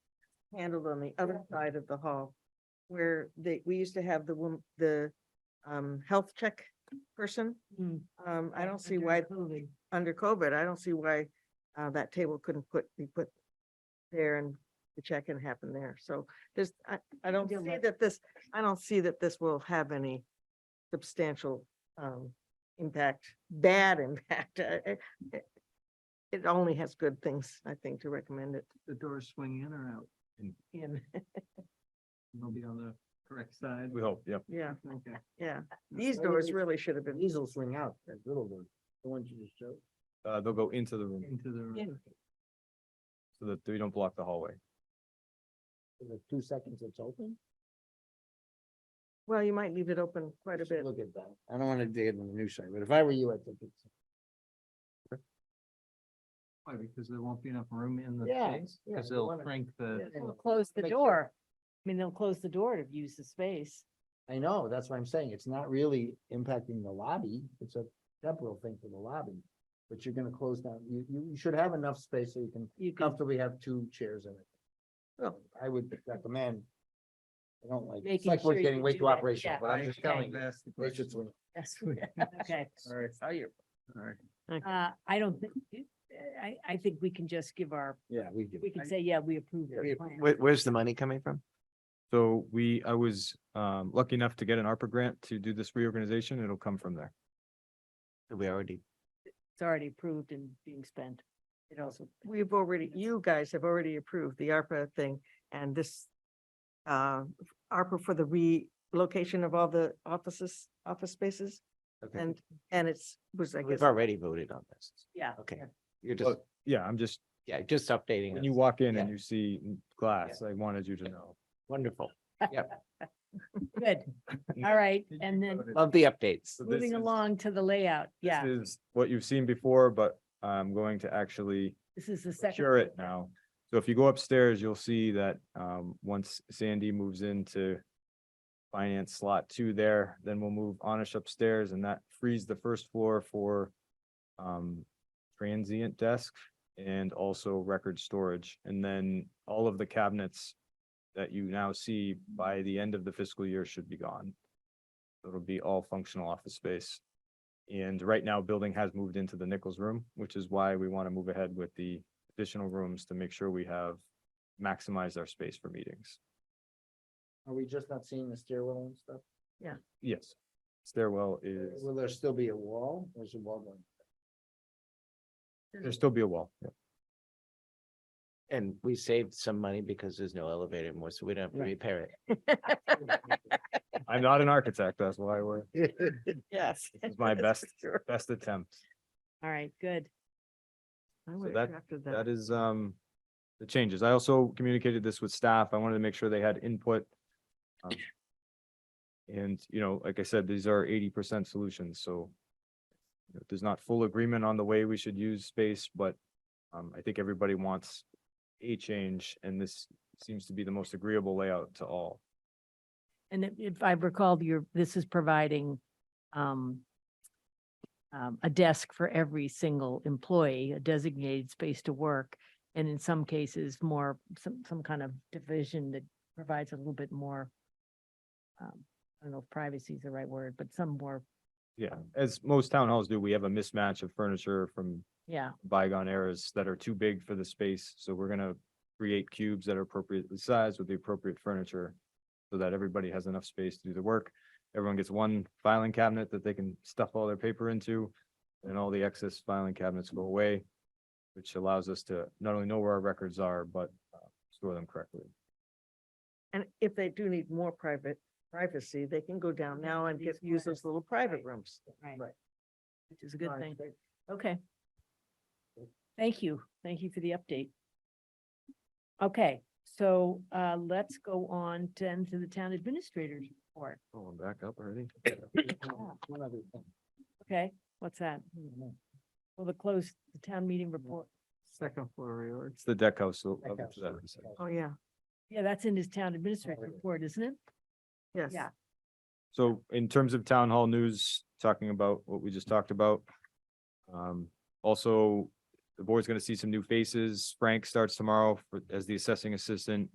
handled on the other side of the hall. Where they, we used to have the wom- the um health check person. Mm. Um, I don't see Under why, COVID. under COVID, I don't see why uh that table couldn't put, be put there and the check-in happen there. So there's, I, I don't see Yeah, but- that this, I don't see that this will have any substantial um impact, bad impact. Uh, uh, uh, It only has good things, I think, to recommend it the doors swing in or out, in. and they'll be on the correct side. We hope, yep. Yeah, Okay. yeah. These Why would doors they- really should have been, These will swing out, that little one, the ones you just showed. Uh, they'll go into the room Into the, In. so that we don't block the hallway. for the two seconds it's open? well, you might leave it open quite a Just bit. Look at that. I don't wanna dig into the new side, but if I were you, I think it's, why, because there won't be enough room in the Yeah, space, yeah, because you they'll wanna- shrink the, Yeah. They'll Close the Make sure- door. I mean, they'll close the door to use the space. I know, that's what I'm saying. It's not really impacting the lobby. It's a temporal thing for the lobby. But you're gonna close down, you, you, you should have enough space so you can You can comfortably have two chairs in it. Well- I would recommend. I don't like, it's Making like sure we're you getting way do too that, operational, yeah. but I'm just Okay. telling you. That's the they should question. swing. Okay. All right, Tell you. all right. Uh, I don't think, I, I think we can just give our, Yeah, we do. we can say, yeah, we approve We- your plan. where's the money coming from? So we, I was, um, lucky enough to get an ARPA grant to do this reorganization. It'll come from there. We already. It's already approved and being spent. It also, We've already, you guys have already approved the ARPA thing and this uh, ARPA for the relocation of all the offices, office spaces. Okay. And, and it's, was, I guess, already voted on this. yeah. Okay, you're just- Yeah, I'm just, yeah, just updating. when you walk in Yeah. and you see glass, I wanted you to know. Wonderful. Good. All right. Did And then Love the updates. So this moving is- along to the layout. Yeah, This is what you've seen before, but I'm going to actually this is the second. secure it now. So if you go upstairs, you'll see that um, once Sandy moves into finance slot two there, then we'll move Anish upstairs and that frees the first floor for um, transient desk and also record storage. And then all of the cabinets that you now see by the end of the fiscal year should be gone. It'll be all functional office space. And right now, building has moved into the Nichols room, which is why we want to move ahead with the additional rooms to make sure we have maximized our space for meetings. Are we just not seeing the stairwell and stuff? Yes. Stairwell is, Will there still be a wall? There's a wall going. there'll still be a wall. And we saved some money because there's no elevator anymore, so we don't have to Right. repair it. I'm not an architect, that's why we're, yes. this is my that's best, for sure. best attempt. All right, good. I would that- have drafted That that. is, um, the changes. I also communicated this with staff. I wanted to make sure they had input. um, And, you know, like I said, these are eighty percent solutions, so you know, there's not full agreement on the way we should use space, but um, I think everybody wants a change, and this seems to be the most agreeable layout to all. And if- if I recall, your this is providing um, um, a desk for every single employee, a designated space to work. And in some cases, more, some, some kind of division that provides a little bit more, um, I don't know if privacy is the right word, but some more, Yeah, as most town halls do, we have a mismatch of furniture from yeah, bygone eras that are too big for the space, so we're gonna create cubes that are appropriately sized with the appropriate furniture so that everybody has enough space to do the work. Everyone gets one filing cabinet that they can stuff all their paper into, and all the excess filing cabinets go away, which allows us to not only know where our records are, but uh, store them correctly. And if they do need more private privacy, they can go down now and get, These use those little private right. rooms. right, Right. which is a good thing. Okay. Thank you. Thank you for the update. Okay, so uh, let's go on then to the town administrator's report. Oh, I'm back up already? One other thing. Okay, what's that? Well, the close, the town meeting report. Second floor reorg. It's the deck house. so I'll Deck get to that in a house. second. Oh, yeah, Yeah, that's in his town administrator report, isn't it? yes. Yeah. So in terms of town hall news, talking about what we just talked about. Um, also, the board's gonna see some new faces. Frank starts tomorrow for- as the assessing assistant.